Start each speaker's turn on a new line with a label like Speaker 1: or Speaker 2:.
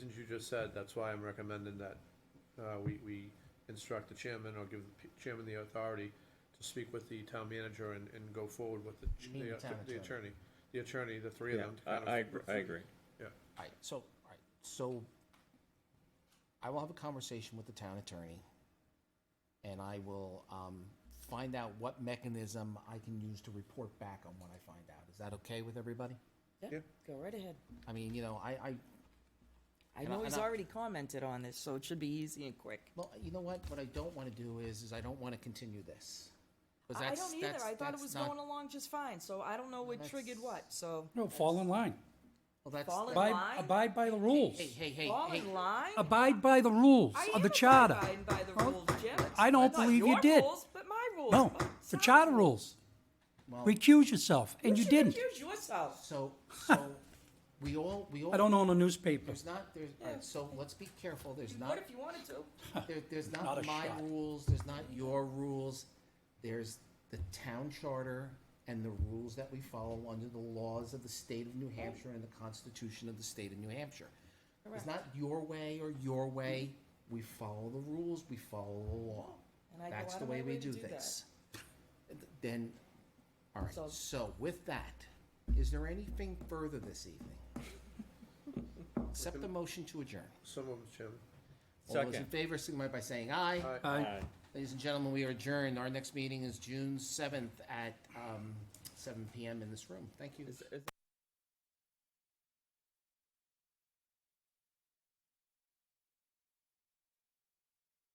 Speaker 1: just said, that's why I'm recommending that, uh, we, we instruct the chairman or give the p- chairman the authority to speak with the town manager and, and go forward with the, ch-
Speaker 2: You mean
Speaker 1: the
Speaker 2: the town
Speaker 1: the
Speaker 2: attorney.
Speaker 1: attorney, the attorney, the three of
Speaker 3: Yeah,
Speaker 1: them. to
Speaker 3: I,
Speaker 1: kind of-
Speaker 3: I, agr- I agree.
Speaker 1: Yeah,
Speaker 2: All right, so, all right, so I will have a conversation with the town attorney, and I will um, find out what mechanism I can use to report back on what I find out. Is that okay with everybody?
Speaker 1: Yeah.
Speaker 4: Yeah, go right ahead.
Speaker 2: I mean, you know, I, I,
Speaker 4: I
Speaker 2: And I-
Speaker 4: know he's
Speaker 2: and I-
Speaker 4: already commented on this, so it should be easy and quick.
Speaker 2: well, you know what? What I don't want to do is, is I don't want to continue this. 'Cause
Speaker 4: I I
Speaker 2: that's-
Speaker 4: don't either.
Speaker 2: that's-
Speaker 4: I thought it
Speaker 2: that's
Speaker 4: was
Speaker 2: not-
Speaker 4: going along just fine, so I don't know what
Speaker 2: That's-
Speaker 4: triggered what, so.
Speaker 5: No, fall in line.
Speaker 2: Well, that's-
Speaker 4: Fall in
Speaker 2: that-
Speaker 5: Abide,
Speaker 4: line?
Speaker 5: abide by the rules.
Speaker 2: Hey, hey, hey,
Speaker 4: Fall
Speaker 2: hey.
Speaker 4: in line?
Speaker 5: Abide by the rules
Speaker 4: I
Speaker 5: of the
Speaker 4: am
Speaker 5: charter.
Speaker 4: abiding by the rules, Jim.
Speaker 5: I don't
Speaker 4: Not
Speaker 5: believe you
Speaker 4: your
Speaker 5: did.
Speaker 4: rules, But my rules.
Speaker 5: No,
Speaker 4: Oh,
Speaker 5: the
Speaker 4: sorry.
Speaker 5: charter rules.
Speaker 2: Well-
Speaker 5: Recuse yourself, and you
Speaker 4: should
Speaker 5: didn't.
Speaker 4: Accuse yourself.
Speaker 2: So, so, we all, we all.
Speaker 5: I don't own a newspaper.
Speaker 2: There's not, there's, all right, so let's be careful. There's not.
Speaker 4: What if you wanted to?
Speaker 2: There, there's
Speaker 5: Not
Speaker 2: not
Speaker 5: a
Speaker 2: my
Speaker 5: shot.
Speaker 2: rules, there's not your rules, there's the town charter and the rules that we follow under the laws of the state of New Hampshire and the Constitution of the state of New Hampshire. It's not your way or your way, we follow the rules, we follow the law.
Speaker 4: And I go
Speaker 2: That's
Speaker 4: out
Speaker 2: the
Speaker 4: of my
Speaker 2: way we
Speaker 4: way to
Speaker 2: do
Speaker 4: do that.
Speaker 2: this. Then, all
Speaker 4: So-
Speaker 2: right, so with that, is there anything further this evening? Accept the motion to adjourn.
Speaker 1: some of them, Chairman.
Speaker 2: All those in
Speaker 3: Second.
Speaker 2: favor, signify by saying aye.
Speaker 1: Aye.
Speaker 5: Aye.
Speaker 2: Ladies and gentlemen, we are adjourned. Our next meeting is June seventh at um, seven PM in this room. Thank you.
Speaker 3: Is- is-